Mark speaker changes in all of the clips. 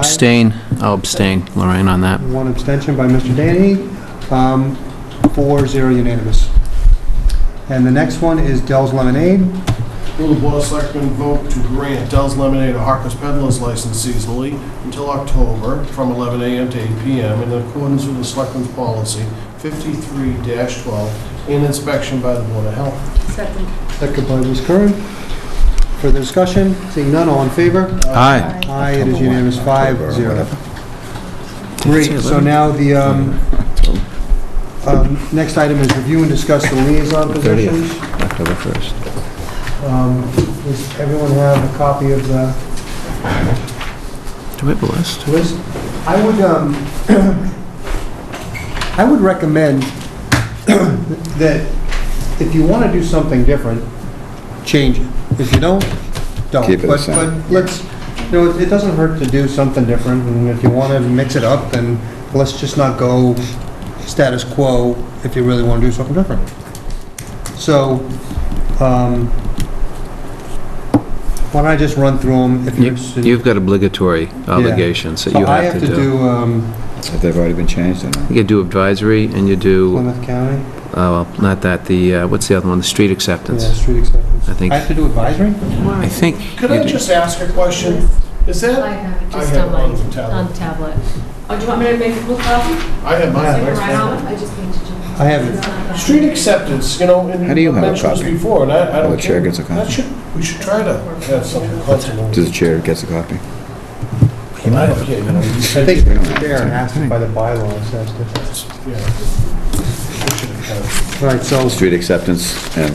Speaker 1: Abstain, I'll abstain, Lorraine, on that.
Speaker 2: One abstention by Mr. Danny, um, four zero unanimous. And the next one is Dell's Lemonade.
Speaker 3: Will the Board of Selectmen vote to grant Dell's Lemonade a Harkers Peddlers license seasonally until October from 11 a.m. to 8 p.m. in accordance with the Selectmen's Policy 53-12 and inspection by the Board of Health?
Speaker 4: Second.
Speaker 2: Second by Ms. Curran. Further discussion? Seeing none, all in favor?
Speaker 1: Aye.
Speaker 2: Aye, it is unanimous, five, zero. Great, so now the, um, um, next item is review and discuss the liaison positions.
Speaker 5: October 1st.
Speaker 2: Um, Does everyone have a copy of the
Speaker 1: Do we have a list?
Speaker 2: list? I would, um, I would recommend that if you want to do something different, change it. If you don't, don't.
Speaker 5: Keep it the
Speaker 2: But-
Speaker 5: same.
Speaker 2: But let's, you know, it it doesn't hurt to do something different, and if you want to mix it up, then let's just not go status quo if you really want to do something different. So, um, why don't I just run through them if you're
Speaker 1: You-
Speaker 2: interested?
Speaker 1: You've got obligatory obligations that you
Speaker 2: I
Speaker 1: have to do.
Speaker 2: do, um,
Speaker 5: If they've already been changed uh, or not.
Speaker 1: You do advisory, and you do,
Speaker 2: Plymouth County.
Speaker 1: uh, well, not that, the, uh, what's the other one, the street
Speaker 2: Yeah,
Speaker 1: acceptance?
Speaker 2: street acceptance.
Speaker 1: I think,
Speaker 2: I have to do advisory?
Speaker 1: I think,
Speaker 3: Could I
Speaker 1: you do.
Speaker 3: just ask a question? Is
Speaker 4: I
Speaker 3: that,
Speaker 4: have it
Speaker 3: I
Speaker 4: just
Speaker 3: have
Speaker 4: on
Speaker 3: it
Speaker 4: my,
Speaker 3: on the tablet.
Speaker 4: on the tablet. Oh, do you want me to make a full copy?
Speaker 3: I have
Speaker 2: Yeah,
Speaker 3: mine.
Speaker 4: I just need to jump.
Speaker 2: I have it.
Speaker 3: Street acceptance, you know, and
Speaker 5: How do you
Speaker 3: you
Speaker 5: have a
Speaker 3: mentioned this
Speaker 5: copy?
Speaker 3: before, and I I
Speaker 5: Oh,
Speaker 3: don't
Speaker 5: the chair
Speaker 3: care.
Speaker 5: gets a copy.
Speaker 3: That should, we should try to have something constant.
Speaker 5: Does the chair gets a copy?
Speaker 3: I don't care, you know. you
Speaker 2: I
Speaker 3: said-
Speaker 2: think Darren has to by the bylaws, has to.
Speaker 3: Yeah.
Speaker 2: All right, so
Speaker 5: Street acceptance and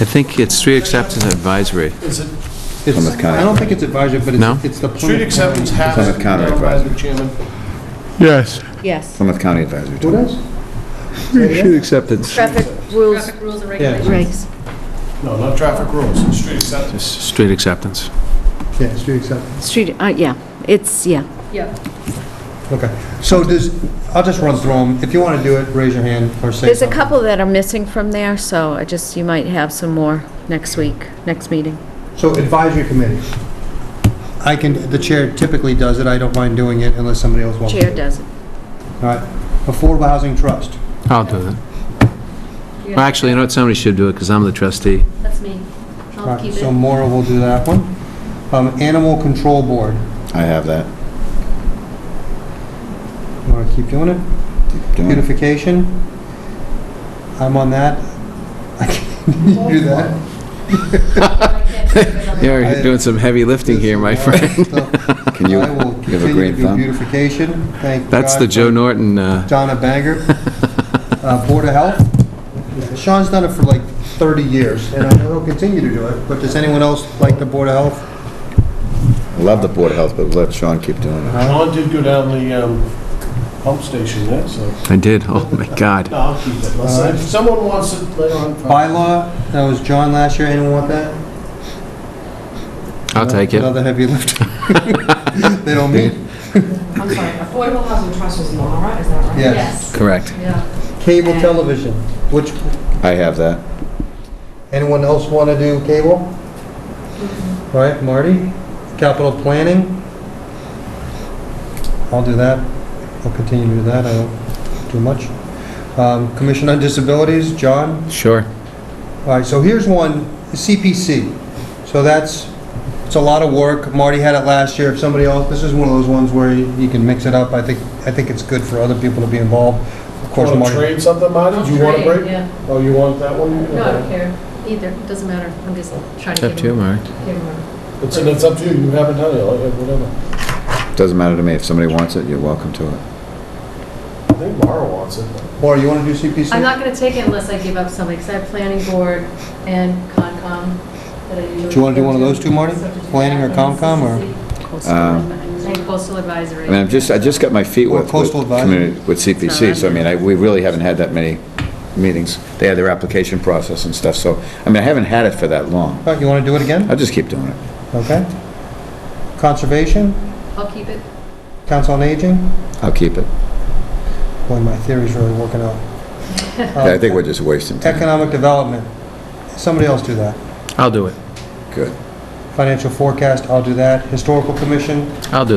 Speaker 1: I think it's street acceptance and advisory.
Speaker 3: Is it
Speaker 2: it's,
Speaker 5: Plymouth County.
Speaker 2: I don't think it's advisory, but
Speaker 1: No?
Speaker 2: it's, it's the.
Speaker 3: Street
Speaker 2: Plymouth
Speaker 3: acceptance
Speaker 2: County.
Speaker 3: has
Speaker 5: Plymouth
Speaker 3: it
Speaker 5: County
Speaker 3: down by
Speaker 5: Advisory.
Speaker 3: the chairman.
Speaker 6: Yes.
Speaker 7: Yes.
Speaker 5: Plymouth County Advisory.
Speaker 2: What
Speaker 5: Board.
Speaker 2: else? Say again?
Speaker 5: acceptance.
Speaker 7: Traffic rules,
Speaker 4: Traffic rules and
Speaker 2: Yeah.
Speaker 4: regulations.
Speaker 7: regs.
Speaker 3: No, not traffic rules, street acceptance.
Speaker 1: Just Street acceptance.
Speaker 2: Yeah, street acceptance,
Speaker 7: Street, uh, yeah, it's, yeah.
Speaker 4: Yeah.
Speaker 2: okay. So does, I'll just run through them. If you want to do it, raise your hand or say
Speaker 7: There's a
Speaker 2: something.
Speaker 7: couple that are missing from there, so I just, you might have some more next week, next meeting.
Speaker 2: So advisory committee. I can, the chair typically does it, I don't mind doing it unless somebody else wants to.
Speaker 7: Chair
Speaker 2: do it.
Speaker 7: does it.
Speaker 2: All right, affordable housing trust.
Speaker 1: I'll do that.
Speaker 4: Yeah.
Speaker 1: Well, actually, you know what, somebody should do it, because I'm the trustee.
Speaker 4: That's me.
Speaker 2: All
Speaker 4: I'll
Speaker 2: right,
Speaker 4: keep
Speaker 2: So
Speaker 4: it.
Speaker 2: Maura will do that one. Um, animal control board,
Speaker 5: I have that.
Speaker 2: you want to keep doing it?
Speaker 5: Doing it.
Speaker 2: Beautification, I'm on that. I can't do that.
Speaker 4: I can't keep it on the-
Speaker 1: You're doing some heavy lifting here, my friend.
Speaker 5: Can you,
Speaker 2: I will
Speaker 5: you have a
Speaker 2: continue
Speaker 5: green
Speaker 2: to be
Speaker 5: thumb?
Speaker 2: beautification, thank God.
Speaker 1: That's the
Speaker 2: for
Speaker 1: Joe Norton, uh,
Speaker 2: Donna Banger. Uh, Board of Health, Sean's done it for like 30 years, and I know he'll continue to do it, but does anyone else like the Board of Health?
Speaker 5: I love the Board of Health, but let Sean keep doing it.
Speaker 2: Uh-huh.
Speaker 3: John did go down the um, pump station there, so,
Speaker 1: I did, oh my God.
Speaker 3: no, I'll keep it. Unless- If someone wants it later on. uh, fine.
Speaker 2: Bylaw, that was John last year, anyone want that?
Speaker 1: I'll take it.
Speaker 2: Another heavy lift. They don't meet.
Speaker 8: I'm sorry, Affordable Housing Trust is Laura, is that right?
Speaker 2: Yes.
Speaker 1: Correct.
Speaker 4: Yeah.
Speaker 2: Cable television, which,
Speaker 5: I have that.
Speaker 2: anyone else want to do cable? All right, Marty? Capital planning? I'll do that. I'll continue to do that. I don't do much. Um, Commission on Disabilities, John?
Speaker 1: Sure.
Speaker 2: All right, so here's one, CPC. So that's, it's a lot of work. Marty had it last year. If somebody else, this is one of those ones where you you can mix it up. I think, I think it's good for other people to be involved. Of course,
Speaker 3: Want to
Speaker 2: Marty.
Speaker 3: trade something, Marty? Do you want a
Speaker 4: Trade,
Speaker 3: break?
Speaker 4: Yeah.
Speaker 3: Oh, you want that one?
Speaker 4: No, I don't care. Either. Doesn't matter. I'm just trying
Speaker 1: It's
Speaker 4: to
Speaker 1: up
Speaker 4: give
Speaker 1: to you,
Speaker 4: them.
Speaker 1: Mark.
Speaker 4: give them-
Speaker 3: It's, and it's up to you, you haven't done it, like, whatever.
Speaker 5: Doesn't matter to me. If somebody wants it, you're welcome to it.
Speaker 3: I think Laura wants it.
Speaker 2: Marty, you want to do CPC?
Speaker 4: I'm not going to take it unless I give up something, because I have planning board and Concom that I usually.
Speaker 2: Do you wanna do one of
Speaker 4: go
Speaker 2: those two, Marty? Planning or Concom or-
Speaker 4: And coastal advisory.
Speaker 5: I mean, I've just, I just got my feet
Speaker 2: Or
Speaker 5: wet with
Speaker 2: coastal advisory.
Speaker 5: community, with CPC, so I mean, I, we really haven't had that many meetings. They had their application process and stuff, so, I mean, I haven't had it for that long.
Speaker 2: All right, You want to do it again?
Speaker 5: I'll just keep doing it.
Speaker 2: Okay. Conservation,
Speaker 4: I'll keep it.
Speaker 2: Council on Aging.
Speaker 5: I'll keep it.
Speaker 2: Boy, my theory's really working out.
Speaker 5: I think we're just wasting time.
Speaker 2: Economic development, somebody else do that.
Speaker 1: I'll do it.
Speaker 5: Good.
Speaker 2: Financial forecast, I'll do that. Historical commission,
Speaker 1: I'll do